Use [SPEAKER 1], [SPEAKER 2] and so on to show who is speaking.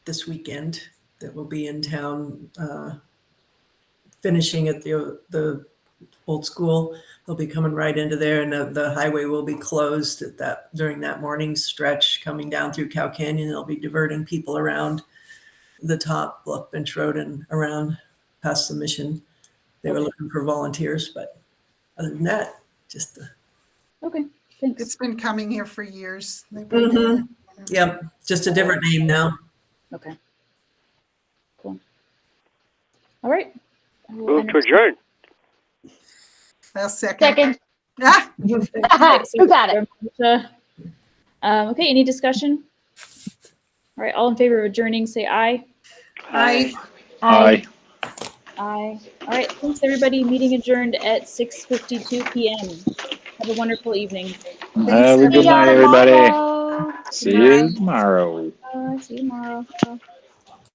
[SPEAKER 1] this weekend that will be in town, uh, finishing at the, the old school. They'll be coming right into there and the, the highway will be closed at that, during that morning stretch coming down through Cow Canyon. They'll be diverting people around the top, Bluff Bench Road and around past the mission. They were looking for volunteers, but other than that, just, the-
[SPEAKER 2] Okay, thanks.
[SPEAKER 3] It's been coming here for years. They've been
[SPEAKER 1] Mhm.
[SPEAKER 3] doing
[SPEAKER 1] yep, just a different name now.
[SPEAKER 2] Okay. Cool. All right. I will
[SPEAKER 4] Move
[SPEAKER 2] enter-
[SPEAKER 4] to adjourn.
[SPEAKER 3] it. Last second.
[SPEAKER 5] Second.
[SPEAKER 3] Ah,
[SPEAKER 5] Who got it?
[SPEAKER 2] Marcia. Um, okay, any discussion? All right, all in favor of adjourning, say aye.
[SPEAKER 3] aye.
[SPEAKER 5] Aye.
[SPEAKER 2] Aye. All right, thanks, everybody. Meeting adjourned at six fifty-two PM. Have a wonderful evening.
[SPEAKER 6] Have a
[SPEAKER 5] See
[SPEAKER 6] good
[SPEAKER 5] y'all
[SPEAKER 6] night, everybody.
[SPEAKER 5] tomorrow.
[SPEAKER 6] See you tomorrow.
[SPEAKER 2] Uh, see you tomorrow.